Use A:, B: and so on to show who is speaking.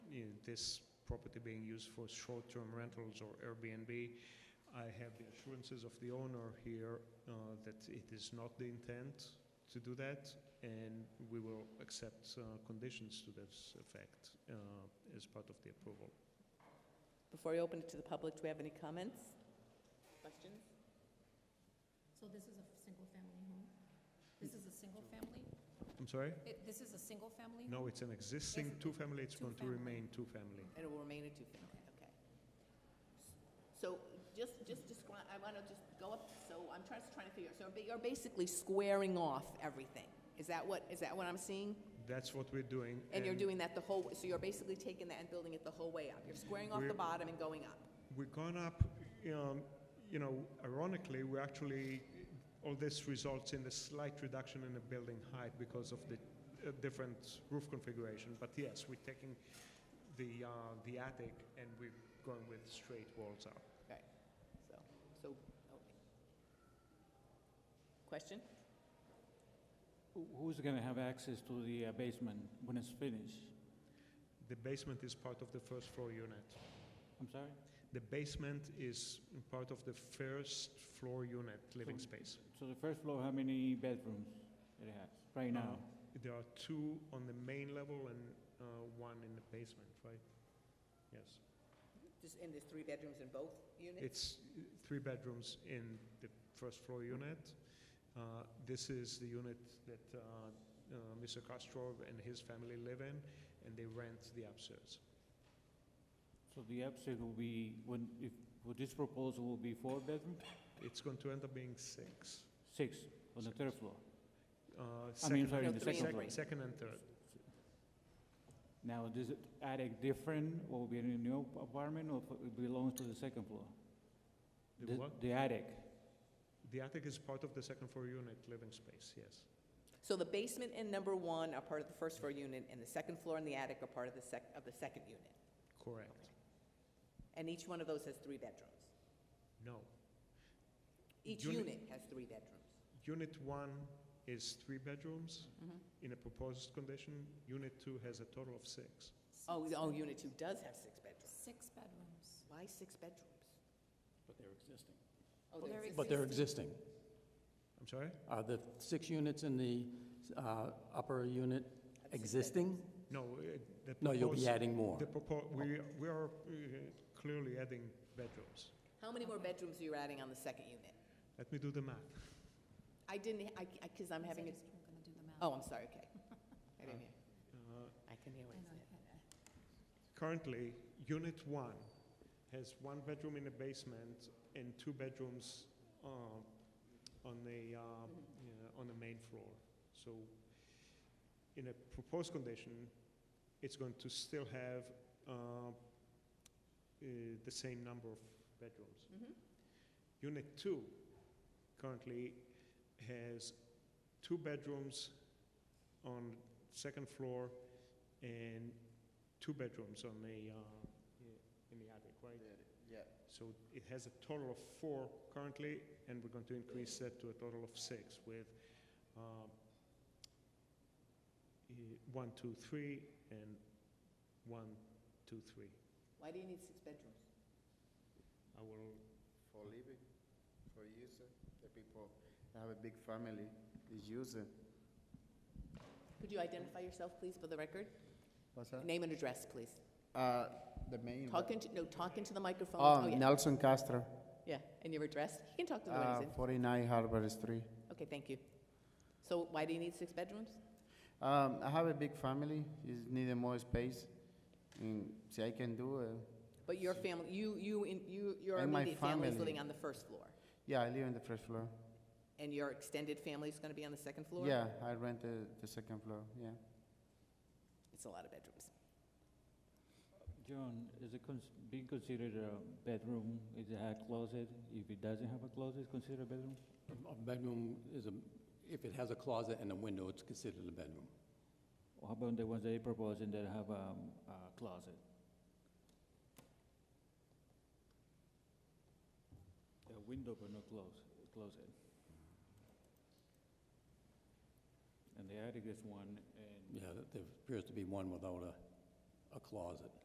A: this property being used for short-term rentals or Airbnb. I have the assurances of the owner here uh, that it is not the intent to do that, and we will accept uh, conditions to this effect uh, as part of the approval.
B: Before we open it to the public, do we have any comments? Questions?
C: So this is a single-family home? This is a single-family?
A: I'm sorry?
C: It- This is a single-family?
A: No, it's an existing
C: Yes,
A: two-family, it's going to
C: two-family.
A: remain two-family.
B: And it will remain a two-family, okay. So just, just describe, I want to just go up, so I'm trying, just trying to figure, out. so ba- you're basically squaring off everything. Is that what, is that what I'm seeing?
A: That's what we're doing.
B: And you're doing that the whole, so you're basically taking that and building it the whole way up. You're squaring off the
A: We're-
B: bottom and going up.
A: We're gone up, um, you know, ironically, we actually, all this results in a slight reduction in the building height because of the uh, different roof configuration. But yes, we're taking the, uh, the attic and we're going with straight walls up.
B: Right, so, so, okay. Question?
D: Who- Who's going to have access to the uh, basement when it's finished?
A: The basement is part of the first floor unit.
D: I'm sorry?
A: The basement is part of the first floor unit living
D: So-
A: space.
D: So the first floor, how many bedrooms it has right now?
A: There are two on the main level and uh, one in the basement, right? Yes.
B: Just, and there's three bedrooms in both units?
A: It's uh, three bedrooms in the first floor unit. Uh, This is the unit that uh, uh, Mr. Castro and his family live in, and they rent the upstairs.
D: So the upstairs will be, when, if, well, this proposal will be four bedrooms?
A: It's going to end up being six.
D: Six on the third floor.
A: Uh,
D: I
A: second-
D: mean, sorry,
B: No,
D: the
B: three
D: second
B: and
D: floor.
B: three.
A: Second and third.
D: Now, is it attic different, or will be in a new apartment, or it belongs to the second floor?
A: The what?
D: The attic.
A: The attic is part of the second floor unit living space, yes.
B: So the basement and number one are part of the first floor unit, and the second floor and the attic are part of the sec, of the second unit.
A: Correct.
B: And each one of those has three bedrooms.
A: No.
B: Each
A: Unit-
B: unit has three bedrooms.
A: Unit one is three bedrooms
B: Mm-hmm.
A: in a proposed condition. Unit two has a total of six.
B: Oh, oh, unit two does have six bedrooms.
C: Six bedrooms.
B: Why six bedrooms?
E: But they're existing.
B: Oh,
C: Well,
B: there's
C: there
B: six.
E: But they're existing.
A: I'm sorry?
E: Are the six units in the uh, upper unit existing?
A: No, uh, the
E: No, you'll
A: proposed-
E: be adding more.
A: The propo, we, we are uh, clearly adding bedrooms.
B: How many more bedrooms are you adding on the second unit?
A: Let me do the math.
B: I didn't, I, I, cause I'm having a,
C: Just gonna do the math.
B: oh, I'm sorry, okay. I didn't hear.
A: Uh,
B: I can hear what
C: I
B: you
C: know,
B: said.
C: I- I-
A: Currently, unit one has one bedroom in the basement and two bedrooms uh, on the, uh, yeah, on the main floor. So in a proposed condition, it's going to still have uh, uh, the same number of bedrooms.
B: Mhm.
A: Unit two currently has two bedrooms on second floor and two bedrooms on the, uh, in the attic, right?
F: Yeah,
A: So it has a total of four currently, and we're going to increase that to a total of six with um, eh, one, two, three, and one, two, three.
B: Why do you need six bedrooms?
A: I will,
F: for living, for using, the people have a big family, is using.
B: Could you identify yourself, please, for the record?
F: What's that?
B: Name and address, please.
F: Uh, the main.
B: Talk into, no, talk into the microphone.
F: Oh,
B: yeah.
F: Nelson Castro,
B: Yeah, and your address? He can talk to the
F: uh,
B: ladies.
F: forty-nine Harbor Street.
B: Okay, thank you. So why do you need six bedrooms?
F: Um, I have a big family, is needed more space, and see, I can do it.
B: But your family, you, you, in- you, your
F: And my
B: immediate family is
F: family.
B: living on the first floor,
F: Yeah, I live in the first floor.
B: and your extended family is gonna be on the second floor?
F: Yeah, I rent the, the second floor, yeah.
B: It's a lot of bedrooms.
D: John, is it cons- being considered a bedroom? Is it a closet? If it doesn't have a closet, it's considered a bedroom?
E: A- A bedroom is a, if it has a closet and a window, it's considered a bedroom.
D: Or how about the ones they propose and that have um, a closet? A window but no close, closet. And the attic is one and
E: Yeah, there appears to be one without a, a closet.